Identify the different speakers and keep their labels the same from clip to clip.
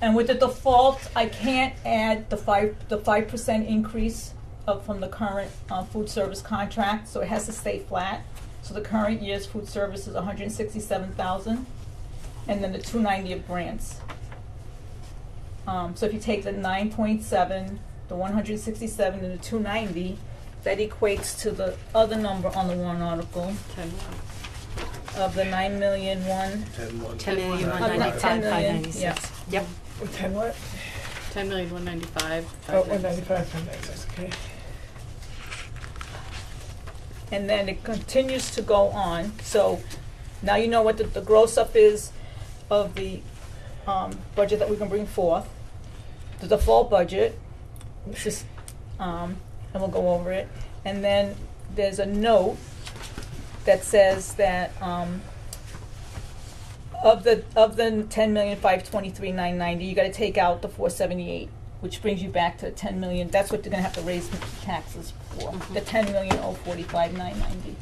Speaker 1: And with the default, I can't add the five, the five percent increase of, from the current, uh, food service contract, so it has to stay flat. So the current year's food service is hundred and sixty-seven thousand, and then the two ninety of grants. Um, so if you take the nine point seven, the one hundred and sixty-seven, and the two ninety, that equates to the other number on the warrant article
Speaker 2: Ten one.
Speaker 1: of the nine million one,
Speaker 3: Ten one.
Speaker 2: Ten million one
Speaker 1: Uh, not
Speaker 2: ninety
Speaker 1: ten
Speaker 2: five five
Speaker 1: million,
Speaker 2: ninety
Speaker 1: yeah.
Speaker 2: six. Yep.
Speaker 4: Ten what?
Speaker 2: Ten million one ninety five.
Speaker 4: Oh, one ninety-five, ten ninety-six, okay.
Speaker 1: and then it continues to go on. So now you know what the, the gross up is of the, um, budget that we can bring forth, the default budget, which is, um, and we'll go over it. And then there's a note that says that, um, of the, of the ten million five twenty-three nine ninety, you gotta take out the four seventy-eight, which brings you back to ten million, that's what they're gonna have to raise taxes for, the
Speaker 2: Mhm.
Speaker 1: ten million oh forty-five nine ninety.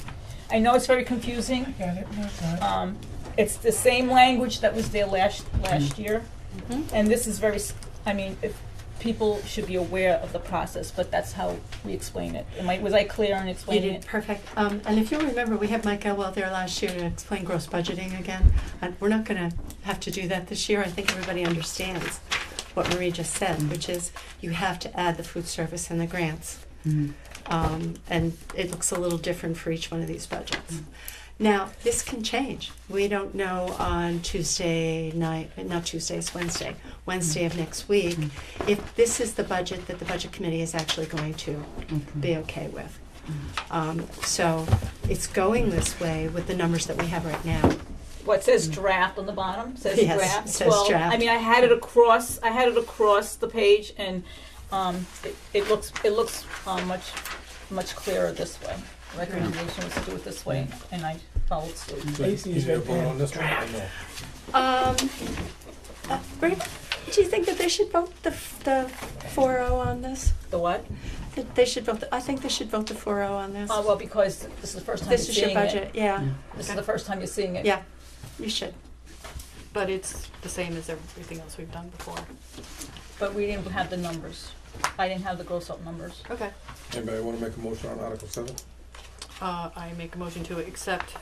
Speaker 1: I know it's very confusing,
Speaker 4: Got it, no, it's not.
Speaker 1: um, it's the same language that was there last, last year,
Speaker 2: Mm-hmm.
Speaker 1: and this is very, s- I mean, if, people should be aware of the process, but that's how we explain it. Am I, was I clear on
Speaker 2: You
Speaker 1: explaining
Speaker 2: did
Speaker 1: it?
Speaker 2: perfect. Um, and if you remember, we had Mike Elwell there last year to explain gross budgeting again. And we're not gonna have to do that this year. I think everybody understands what Marie just said, which is you have to add the food service and the grants. Um, and it looks a little different for each one of these budgets. Now, this can change. We don't know on Tuesday night, not Tuesday, it's Wednesday, Wednesday of next week, if this is the budget that the Budget Committee is actually going to be okay with. Um, so it's going this way with the numbers that we have right now.
Speaker 1: What says draft on the bottom, says
Speaker 2: Mm. Yes,
Speaker 1: draft,
Speaker 2: says
Speaker 1: well, I
Speaker 2: draft.
Speaker 1: mean, I had it across, I had it across the page and, um, it, it looks, it looks, uh, much, much clearer this way. Recommendation was to do it this way, and I followed suit.
Speaker 3: So is is there a vote on this one or no?
Speaker 2: Um, uh, Bree, do you think that they should vote the, f- the 4-0 on this?
Speaker 1: The what?
Speaker 2: That they should vote, the- I think they should vote the 4-0 on this.
Speaker 1: Uh, well, because this is the first time you're
Speaker 2: This is your
Speaker 1: seeing it.
Speaker 2: budget, yeah.
Speaker 1: This is
Speaker 2: Okay.
Speaker 1: the first time you're seeing it.
Speaker 2: Yeah, you should.
Speaker 5: But it's the same as everything else we've done before.
Speaker 1: But we didn't have the numbers. I didn't have the gross up numbers.
Speaker 5: Okay.
Speaker 3: Anybody wanna make a motion on Article seven?
Speaker 5: Uh, I make a motion to accept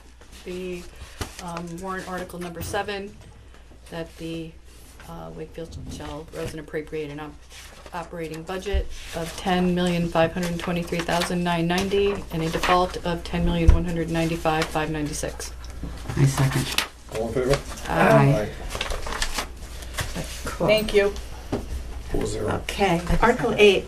Speaker 5: the, um, warrant article number seven, that the, uh, Wakefield shall rose and appropriate an op- operating budget of ten million five hundred and twenty-three thousand nine ninety and a default of ten million one hundred and ninety-five five ninety-six.
Speaker 6: I second.
Speaker 3: All in favor?
Speaker 6: Aye.
Speaker 2: Cool.
Speaker 1: Thank you.
Speaker 3: Four zero.
Speaker 2: Okay, Article eight,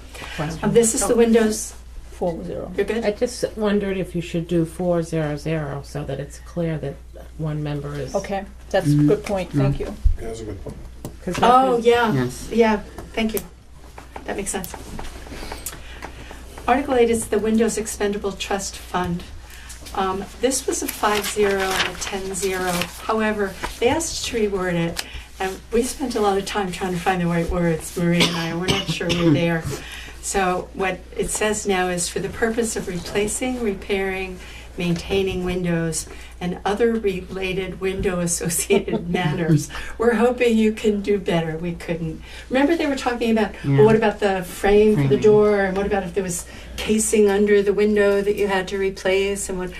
Speaker 2: Um, this is the
Speaker 1: Oh.
Speaker 2: windows,
Speaker 1: Four zero.
Speaker 2: you're good?
Speaker 7: I just wondered if you should do four zero zero so that it's clear that one member is.
Speaker 1: Okay, that's a good point, thank you.
Speaker 3: Yeah, that's a good point.
Speaker 7: 'cause that
Speaker 2: Oh,
Speaker 7: is-
Speaker 2: yeah,
Speaker 6: Yes.
Speaker 2: yeah, thank you. That makes sense. Article eight is the Windows Expendable Trust Fund. Um, this was a five zero and a ten zero, however, they asked to reword it, and we spent a lot of time trying to find the right words, Marie and I, we're not sure we we're there. So what it says now is for the purpose of replacing, repairing, maintaining windows and other related window associated matters. We're hoping you can do better. We couldn't. Remember they were talking about well,
Speaker 6: Yeah.
Speaker 2: what about the frame for the
Speaker 6: Framing.
Speaker 2: door and what about if there was casing under the window that you had to replace and what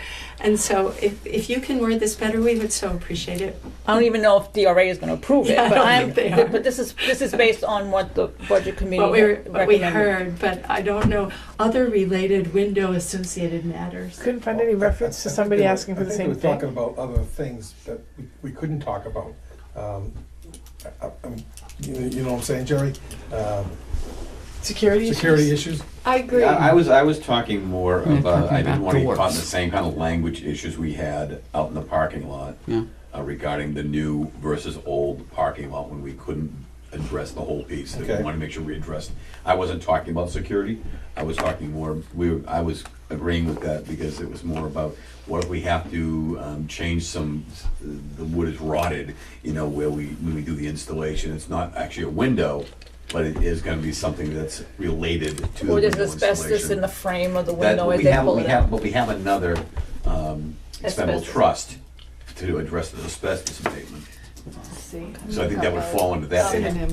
Speaker 2: and so if, if you can word this better we would so appreciate it.
Speaker 1: I don't even know if DRA is gonna approve it,
Speaker 2: Yeah, I
Speaker 1: but
Speaker 2: don't
Speaker 1: I'm,
Speaker 2: think they are.
Speaker 1: but this is, this is based on what the budget committee
Speaker 2: What we, what we
Speaker 1: recommended.
Speaker 2: heard, but I don't know other related window associated matters.
Speaker 4: Couldn't find any reference to somebody asking for the same
Speaker 3: I think they were
Speaker 4: thing.
Speaker 3: talking about other things that we- we couldn't talk about. Um, I- I- I'm- You know- you know what I'm saying, Jerry? Um,
Speaker 4: Security issues?
Speaker 3: Security issues?
Speaker 5: I agree.
Speaker 8: I I was, I was talking more
Speaker 6: Yeah,
Speaker 8: about,
Speaker 6: talking
Speaker 8: I didn't
Speaker 6: about
Speaker 8: want to get caught
Speaker 6: doors.
Speaker 8: in the same kind of language issues we had out in the parking lot
Speaker 6: Yeah.
Speaker 8: uh, regarding the new versus old parking lot when we couldn't address the whole piece. And
Speaker 3: Okay.
Speaker 8: We want to make sure we addressed. I wasn't talking about security. I was talking more, we, were- I was agreeing with that because it was more about what if we have to um, change some, the wood is rotted, you know, where we, when we do the installation, it's not actually a window, but it is going to be something that's related to the
Speaker 1: Or
Speaker 8: window
Speaker 1: there's
Speaker 8: installation.
Speaker 1: asbestos in the frame of the
Speaker 8: That,
Speaker 1: window
Speaker 8: but
Speaker 1: as
Speaker 8: we
Speaker 1: they
Speaker 8: have,
Speaker 1: pull
Speaker 8: we
Speaker 1: it out.
Speaker 8: have, but we have another, um, expendable
Speaker 1: Asbestos.
Speaker 8: trust to address the asbestos abatement.
Speaker 5: Let's see.
Speaker 8: So I think that would fall into that.
Speaker 5: Synonym